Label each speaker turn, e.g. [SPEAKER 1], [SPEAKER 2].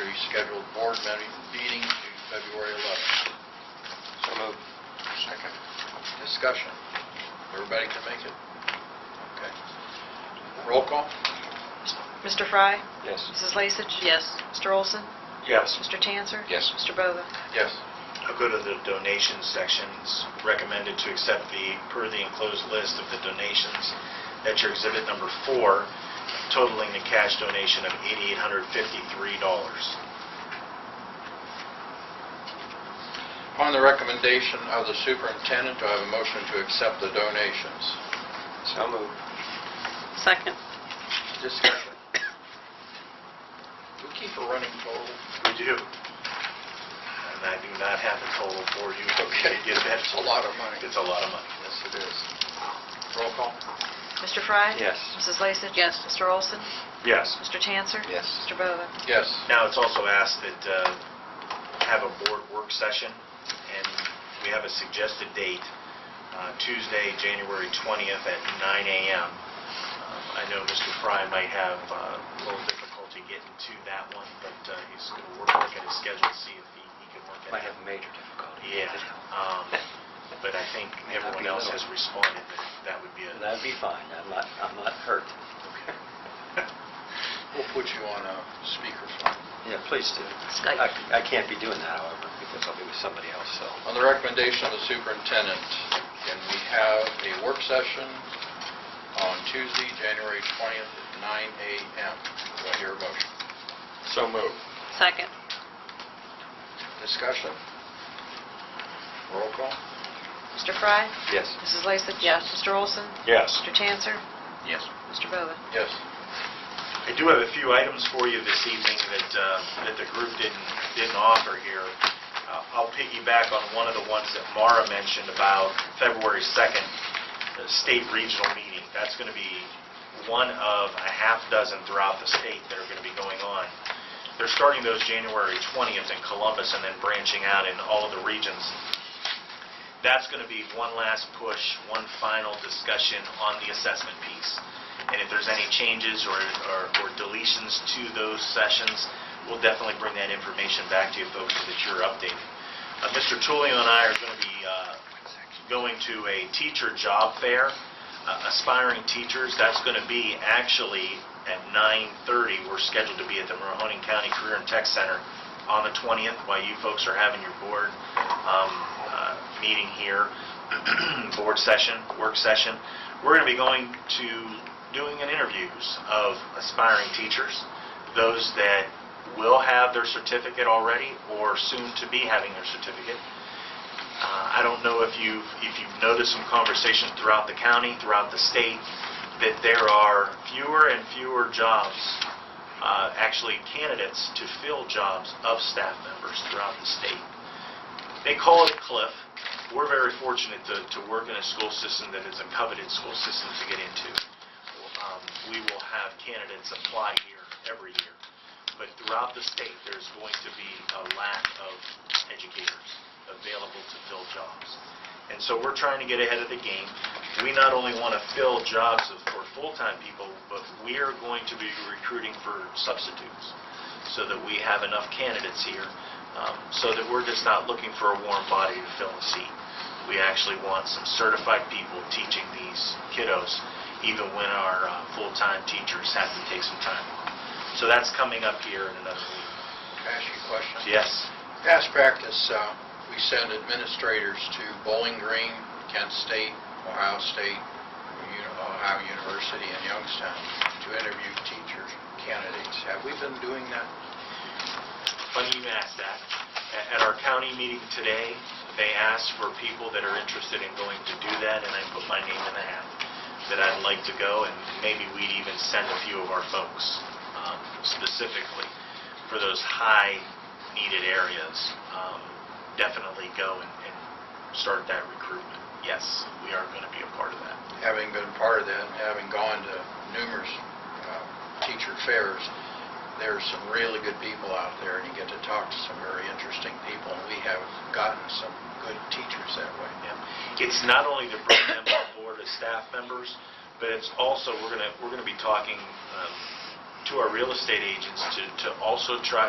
[SPEAKER 1] rescheduled board me- meeting to February 11th.
[SPEAKER 2] So moved. Second.
[SPEAKER 1] Discussion. Everybody can make it? Okay. Roll call?
[SPEAKER 3] Mr. Fry?
[SPEAKER 2] Yes.
[SPEAKER 3] Mrs. Lasich? Yes. Mr. Olson?
[SPEAKER 2] Yes.
[SPEAKER 3] Mr. Tanzer?
[SPEAKER 2] Yes.
[SPEAKER 3] Mr. Bova?
[SPEAKER 1] Yes.
[SPEAKER 4] I'll go to the donation sections. Recommended to accept the, per the enclosed list of the donations. That's your exhibit number four, totaling the cash donation of $8,853.
[SPEAKER 1] Upon the recommendation of the superintendent, do I have a motion to accept the donations?
[SPEAKER 2] So moved.
[SPEAKER 3] Second.
[SPEAKER 1] Discussion. Do we keep a running total?
[SPEAKER 4] We do. And I do not have the total for you. but we did get that.
[SPEAKER 1] It's a lot of money.
[SPEAKER 4] It's a lot of money.
[SPEAKER 1] Yes, it is. Roll call?
[SPEAKER 3] Mr. Fry?
[SPEAKER 2] Yes.
[SPEAKER 3] Mrs. Lasich? Yes. Mr. Olson?
[SPEAKER 4] Yes.
[SPEAKER 3] Mr. Tanzer?
[SPEAKER 2] Yes.
[SPEAKER 3] Mr. Bova?
[SPEAKER 1] Yes.
[SPEAKER 4] Now, it's also asked that uh, have a board work session, and we have a suggested date, uh, Tuesday, January 20th at 9 a.m. Um, I know Mr. Fry might have uh, a little difficulty getting to that one, but uh, he's going to work at his schedule, to see if he he can work it
[SPEAKER 2] Might have
[SPEAKER 4] out.
[SPEAKER 2] major difficulty.
[SPEAKER 4] Yeah, um, but I think
[SPEAKER 2] Might not
[SPEAKER 4] everyone
[SPEAKER 2] be
[SPEAKER 4] else
[SPEAKER 2] little.
[SPEAKER 4] has responded that that would be a...
[SPEAKER 2] That'd be fine. I'm not, I'm not hurt.
[SPEAKER 1] We'll put you on a speakerphone.
[SPEAKER 2] Yeah, please do.
[SPEAKER 3] Skype.
[SPEAKER 2] I I can't be doing that, however, because I'll be with somebody else, so.
[SPEAKER 1] On the recommendation of the superintendent, can we have a work session on Tuesday, January 20th at 9 a.m.? Do I hear a motion?
[SPEAKER 2] So moved.
[SPEAKER 3] Second.
[SPEAKER 1] Discussion? Roll call?
[SPEAKER 3] Mr. Fry?
[SPEAKER 2] Yes.
[SPEAKER 3] Mrs. Lasich? Yes. Mr. Olson?
[SPEAKER 4] Yes.
[SPEAKER 3] Mr. Tanzer?
[SPEAKER 1] Yes.
[SPEAKER 3] Mr. Bova?
[SPEAKER 1] Yes.
[SPEAKER 4] I do have a few items for you this evening that, uh, that the group didn't, didn't offer here. Uh, I'll piggyback on one of the ones that Mara mentioned about February 2nd, the state regional meeting. That's going to be one of a half dozen throughout the state that are going to be going on. They're starting those January 20th in Columbus and then branching out in all of the regions that's going to be one last push, one final discussion on the assessment piece. And if there's any changes or or- or deletions to those sessions, we'll definitely bring that information back to you folks so that you're updated. Uh, Mr. Tullio and I are going to be uh, going to a teacher job fair, uh, aspiring teachers. That's going to be actually at 9:30. We're scheduled to be at the Mahoning County Career and Tech Center on the 20th while you folks are having your board um, uh, meeting here, board session, work session. We're going to be going to doing an interviews of aspiring teachers, those that will have their certificate already or soon to be having their certificate. Uh, I don't know if you've, if you've noticed some conversations throughout the county, throughout the state, that there are fewer and fewer jobs, uh, actually candidates to fill jobs of staff members throughout the state. They call it a cliff. We're very fortunate to, to work in a school system that is a coveted school system to get into. Um, We will have candidates apply here every year, but throughout the state, there's going to be a lack of educators available to fill jobs. And so we're trying to get ahead of the game. We not only want to fill jobs of- for full-time people, but we are going to be recruiting for substitutes so that we have enough candidates here, um, so that we're just not looking for a warm body to fill a seat. We actually want some certified people teaching these kiddos, even when our uh, full-time teachers have to take some time off. So that's coming up here in another week.
[SPEAKER 1] Can I ask you a question?
[SPEAKER 4] Yes,
[SPEAKER 1] Past practice, uh, we send administrators to Bowling Green, Kent State, Ohio State, Uni- Ohio University, and Youngstown to interview teachers, candidates. Have we been doing that?
[SPEAKER 4] funny you ask that. A- At our county meeting today, they asked for people that are interested in going to do that, and I put my name in the hat, that I'd like to go, and maybe we'd even send a few of our folks um, specifically for those high-needed areas. Um, Definitely go and and start that recruitment. Yes, we are going to be a part of that.
[SPEAKER 1] Having been part of that, and having gone to numerous uh, teacher fairs, there are some really good people out there, and you get to talk to some very interesting people, and we have gotten some good teachers that way.
[SPEAKER 4] Yeah. It's not only to bring them on board as staff members, but it's also, we're going to, we're going to be talking um, to our real estate agents to, to also try